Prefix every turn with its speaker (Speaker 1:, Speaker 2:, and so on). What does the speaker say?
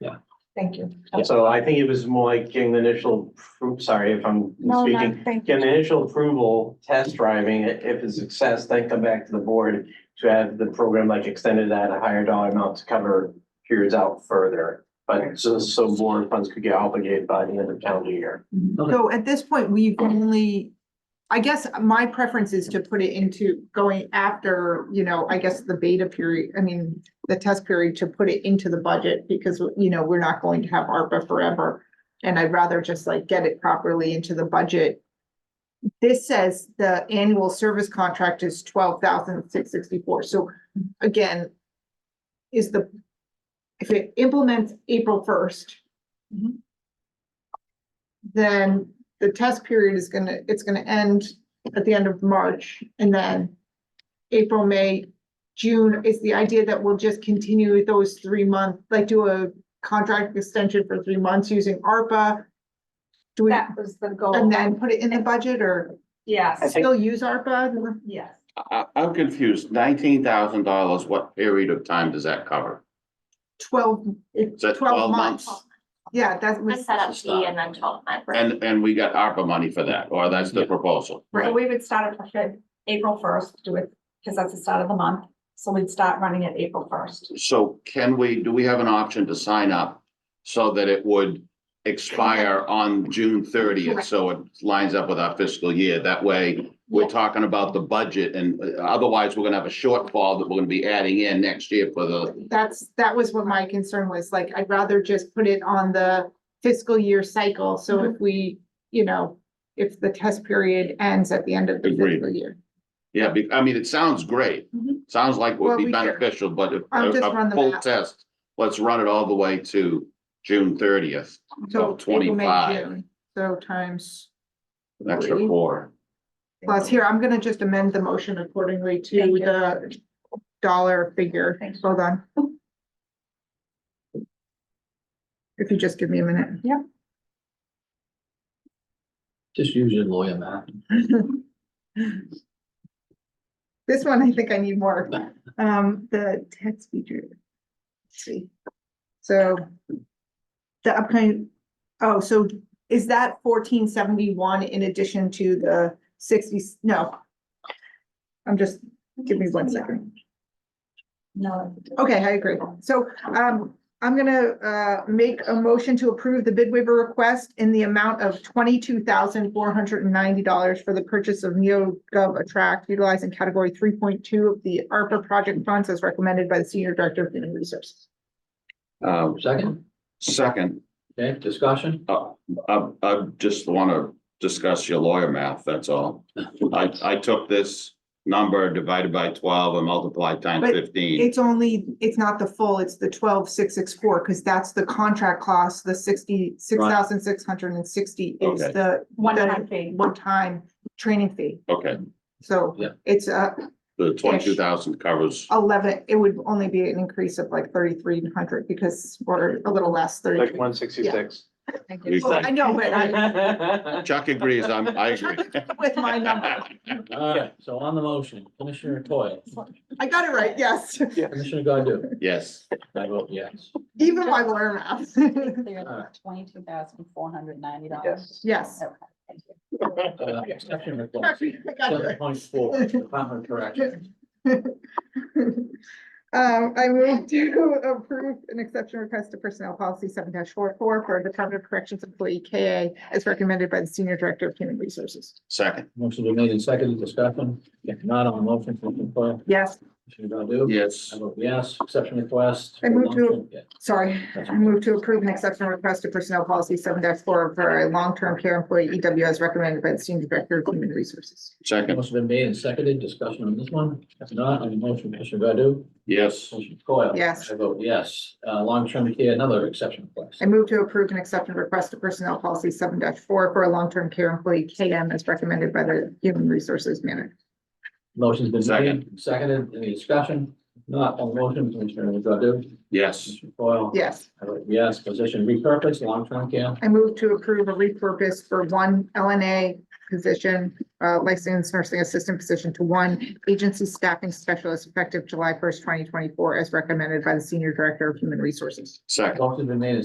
Speaker 1: Thank you.
Speaker 2: So I think it was more like getting the initial, appro- sorry if I'm
Speaker 1: No,
Speaker 2: speaking.
Speaker 1: no, thank
Speaker 2: Getting
Speaker 1: you.
Speaker 2: the initial approval, test driving, i- if it's success, then come back to the board to have the program like extended at a higher dollar amount to cover periods out further. But so, so more funds could get obligated by the end of calendar year.
Speaker 1: So at this point, we've only, I guess my preference is to put it into going after, you know, I guess the beta period, I mean, the test period to put it into the budget because, you know, we're not going to have ARPA forever. And I'd rather just like get it properly into the budget. This says the annual service contract is twelve thousand six sixty-four. So again, is the, if it implements April first, then the test period is gonna, it's gonna end at the end of March and then April, May, June is the idea that we'll just continue with those three month, like do a contract extension for three months using ARPA. Do we,
Speaker 3: That was the goal.
Speaker 1: and then put it in the budget or
Speaker 3: Yes,
Speaker 1: still use ARPA?
Speaker 3: yes.
Speaker 4: I, I'm confused. Nineteen thousand dollars, what period of time does that cover?
Speaker 1: Twelve,
Speaker 4: Is that
Speaker 1: twelve
Speaker 4: twelve
Speaker 1: months.
Speaker 4: months?
Speaker 1: Yeah, that
Speaker 5: The
Speaker 1: was,
Speaker 5: setup fee and then twelve months.
Speaker 4: And, and we got ARPA money for that, or that's the proposal?
Speaker 3: So we would start it for Feb- April first, do it, because that's the start of the month. So we'd start running it April first.
Speaker 4: So can we, do we have an option to sign up so that it would expire on June thirtieth?
Speaker 5: Correct.
Speaker 4: So it lines up with our fiscal year. That way, we're talking about the budget and uh, otherwise, we're gonna have a shortfall that we're gonna be adding in next year for the,
Speaker 1: that's, that was what my concern was, like, I'd rather just put it on the fiscal year cycle, so if we, you know, if the test period ends at the end of the
Speaker 4: Agreed.
Speaker 1: fiscal year.
Speaker 4: yeah, be- I mean, it sounds great.
Speaker 3: Mhm.
Speaker 4: Sounds like
Speaker 1: Mm-hmm. Well,
Speaker 4: would
Speaker 1: we
Speaker 4: be
Speaker 1: can-
Speaker 4: beneficial, but if-
Speaker 1: I'll
Speaker 4: a
Speaker 1: just run
Speaker 4: a
Speaker 1: the
Speaker 4: full
Speaker 1: math.
Speaker 4: test, let's run it all the way to June thirtieth.
Speaker 1: So
Speaker 4: So
Speaker 1: April, May,
Speaker 4: 25.
Speaker 1: June, So times,
Speaker 4: An extra
Speaker 1: Three.
Speaker 4: four.
Speaker 1: plus here, I'm gonna just amend the motion accordingly to
Speaker 3: Thank you.
Speaker 1: the dollar figure,
Speaker 3: Thank you.
Speaker 1: hold on. If you just give me a minute.
Speaker 6: Just use your lawyer, man.
Speaker 1: This one, I think I need more, um, the text feature. Let's see. So. The upcoming, oh, so is that fourteen seventy-one in addition to the sixty, no? I'm just, give me one second.
Speaker 3: No.
Speaker 1: Okay, I agree. So, um, I'm gonna, uh, make a motion to approve the bid waiver request in the amount of twenty-two thousand four hundred and ninety dollars for the purchase of NeoGov Attract utilizing category three point two of the ARPA project funds as recommended by the Senior Director of Human Resources.
Speaker 4: Um,
Speaker 6: Second,
Speaker 4: second,
Speaker 6: okay, discussion?
Speaker 4: I, I just want to discuss your lawyer math, that's all. I, I took this number divided by twelve and multiplied times
Speaker 1: But
Speaker 4: fifteen.
Speaker 1: It's only, it's not the full, it's the twelve six six four, because that's the contract cost, the sixty, six thousand six hundred and sixty is
Speaker 4: Okay.
Speaker 1: the
Speaker 3: One time fee.
Speaker 1: one-time training fee.
Speaker 4: Okay,
Speaker 1: So
Speaker 6: Yeah.
Speaker 1: it's, uh,
Speaker 4: the twenty-two thousand covers,
Speaker 1: Oh, eleven, it would only be an increase of like thirty-three hundred because we're a little less
Speaker 2: Like
Speaker 1: thirty.
Speaker 2: one sixty-six.
Speaker 1: Well, I know, but I,
Speaker 4: Chuck agrees, I'm, I agree.
Speaker 1: with my number,
Speaker 6: All right, so on the motion, Commissioner Toya,
Speaker 1: I got it right, yes,
Speaker 6: Commissioner Godu,
Speaker 4: Yes,
Speaker 6: I vote yes.
Speaker 1: even my lawyer math.
Speaker 3: Uh, Twenty-two thousand four hundred ninety
Speaker 2: Yes.
Speaker 1: Yes.
Speaker 6: Uh, Exception
Speaker 1: I
Speaker 6: request,
Speaker 1: got it right.
Speaker 6: seven point four, Department of Corrections.
Speaker 1: Um, I move to approve an exception request to personnel policy seven 44 for a Department of Corrections employee KA as recommended by the Senior Director of Human Resources.
Speaker 4: second,
Speaker 6: Motion been made and seconded, discussion, if not on the motion, Commissioner Toya,
Speaker 1: Yes,
Speaker 6: Commissioner Godu?
Speaker 4: yes,
Speaker 6: I vote yes, exception request.
Speaker 1: I move to-
Speaker 6: Yeah.
Speaker 1: sorry, I move to approve an exception request to personnel policy seven four for a long-term care employee EW as recommended by the Senior Director of Human Resources.
Speaker 4: second,
Speaker 6: Motion been made and seconded, discussion on this one, if not on the motion, Commissioner Godu?
Speaker 4: yes,
Speaker 6: Commissioner Coyle?
Speaker 1: Yes.
Speaker 6: I vote yes, uh, long-term care, another exception request.
Speaker 1: I move to approve an exception request to personnel policy seven four for a long-term care employee KM as recommended by the Human Resources Manager.
Speaker 6: Motion's been made,
Speaker 4: Second.
Speaker 6: seconded, any discussion? Not on the motion, Commissioner Godu?
Speaker 4: yes,
Speaker 6: Commissioner Coyle?
Speaker 1: Yes.
Speaker 6: I vote Yes, position repurposed, long-term care.
Speaker 1: I move to approve a repurpose for one LNA position, uh, licensed nursing assistant position to one agency staffing specialist effective July first, twenty twenty-four, as recommended by the Senior Director of Human Resources.
Speaker 4: second.
Speaker 6: Motion's been made and